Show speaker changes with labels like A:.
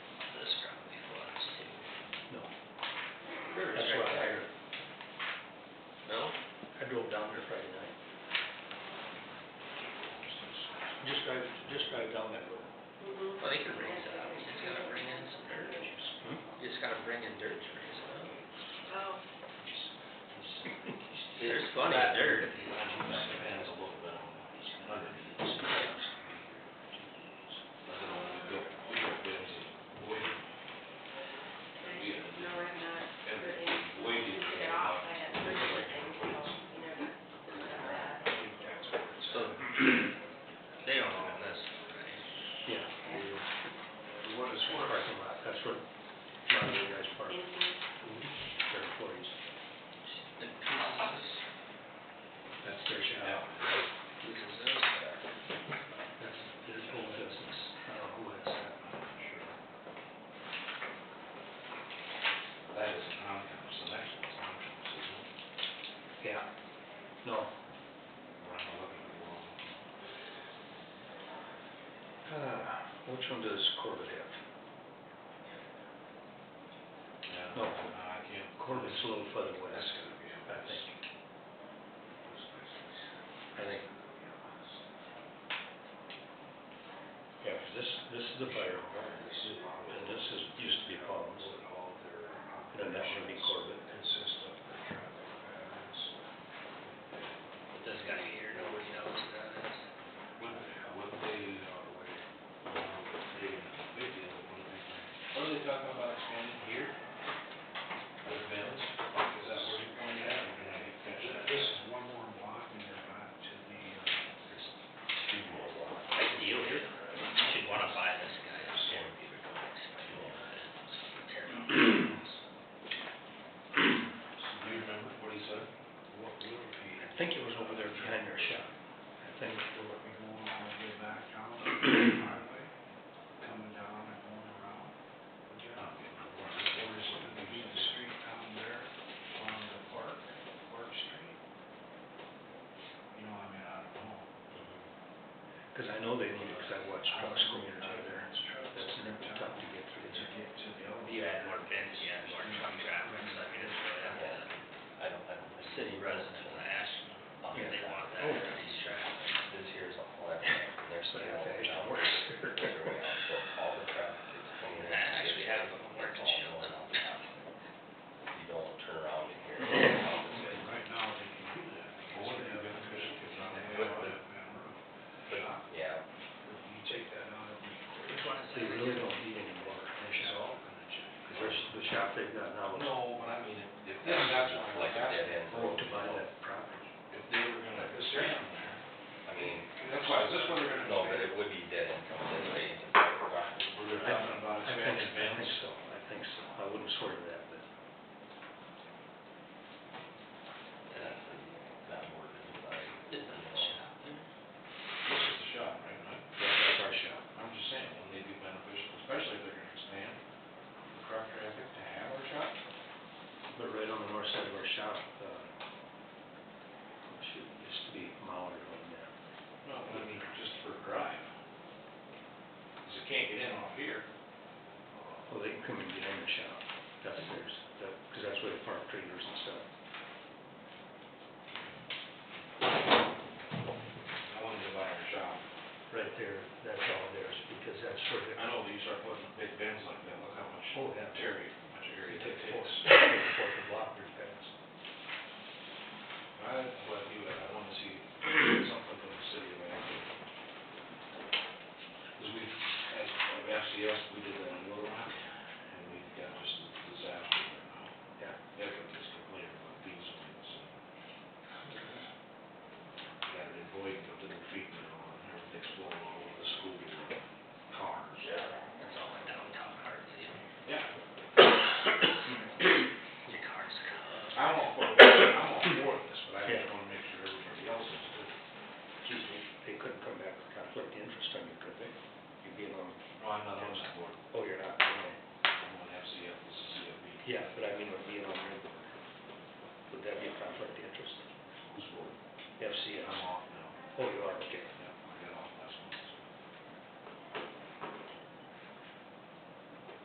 A: Hmm?
B: bringing dirt trays up.
C: Oh,
B: There's plenty of dirt.
C: no, I'm not, but if you get off, I had surgery things, so you never think about that. uh,
B: So, they don't own this, right?
A: Yeah. The one is one parking lot, that's where a lot of the guys park,
C: Mhm.
A: their employees,
B: The pieces,
A: that's their shop.
B: pieces of stuff.
A: That's their whole business, I don't know who has that.
D: That is an outcome, so that's what's an outcome, so it's not-
A: Yeah. No.
D: we're not looking at the wrong.
A: Uh, which one does Corbett have?
D: Yeah,
A: No.
D: I can't.
A: Corbett's a little further
D: That's
A: west,
D: gonna be a
A: I think.
B: I think,
A: Yeah, 'cause this, this is the fire hall, and this is, used to be Paul's. And then that should be Corbett.
D: Consist of the traffic patterns.
B: that's gotta be here, nobody knows that is.
D: Would, would they, uh, wait, uh, would they, big deal, would they? What are they talking about expanding here? The village, is that where you're going at? This is one more block and you're not to the, uh. It's two more blocks.
B: Big deal here. You should wanna buy this guy. It's gonna be the guy. Tear it up.
D: Do you remember what he said? What will be?
A: I think it was over there behind their shop, I think.
D: We're going all the way back down to the highway, coming down and going around. But you're not getting the work. There's gonna be the street down there on the park, Park Street. You know, I mean, I don't know.
A: Because I know they leave, because I watch trucks going in and out of there.
D: It's trucks.
A: That's never tough to get through.
D: Did you get to the other?
B: You add more bins, you add more truck traffic, so I mean, it's really, up to
E: I don't, I don't,
B: the city resident in Ashland, if they want that,
A: Yeah.
B: or these traffic.
E: this year's a whole lot, and they're
A: But
E: still
A: I think it
E: down
A: works.
E: there, they're way out, so all the traffic is coming in.
B: I actually have them work
E: It's all
B: chill
E: going
B: and all
E: out.
B: that.
E: You don't turn around in here.
D: Right now, they can do that. Well, what if you got fish, because I'm out
E: But-
D: of that road. But
E: Yeah,
D: you take that out of the.
B: Which one is
A: They
B: it?
A: really don't need any more
D: It's
A: information.
D: all gonna change.
A: Because there's the shop they've got now is
D: No, but I mean, if, if
E: Yeah,
D: that's why I was
E: like a dead
D: asking,
E: end
A: broke
E: road.
A: to buy that property.
D: if they were gonna expand there.
E: I mean.
D: That's why, is this what they're gonna
E: No, but
D: expand?
E: it would be dead end coming this way into the park.
D: Were they talking about
A: I think, I think
D: expanding Ben's?
A: so, I think so. I wouldn't swear to that, but
E: That's not working, like,
B: Did the shop there?
D: This is the shop, right, Mike?
A: that's our shop.
D: I'm just saying, wouldn't they be beneficial, especially if they're gonna expand the truck traffic to have our shop?
A: But right on the north side of our shop, uh, oh, shoot, it used to be Mauer right now.
D: No, I mean, just for a drive. Cause you can't get in off here.
A: Well, Oh, they can come and get in the shop. That's theirs, that, because that's where they park trailers and stuff.
D: I wanted to buy our shop.
A: Right there, that's all theirs, because that's where they.
D: I know that you start putting big bins like that, look how much
A: Oh, yeah.
D: area, much area
A: They
D: it
A: take four,
D: takes.
A: take four to block their paths.
D: I, what you, I want to see something from the city of Anchorage. Because we, as, of FCS, we did that in Little Rock, and we've got just a disaster right now.
A: Yeah.
D: Everyone is complaining about diesel and so. Got it in Boyden, up to the feet now, and everything's blowing all over the school, and cars.
B: That's all in downtown Hartsfield.
D: Yeah.
B: Your car's covered.
D: I'm all for, I'm all for this, but I
A: Yeah.
D: just want to make sure everybody else is good.
A: Geez, they- they couldn't come back with conflict of interest on you, could they? You'd be alone.
D: No, I'm not on that board,
A: Oh, you're not, okay.
D: I'm on FCF, this is CFB.
A: Yeah, but I mean, would be on your board. Would that be a conflict of interest?
D: Who's board?
A: FCS?
D: I'm off now.
A: Oh, you are, okay.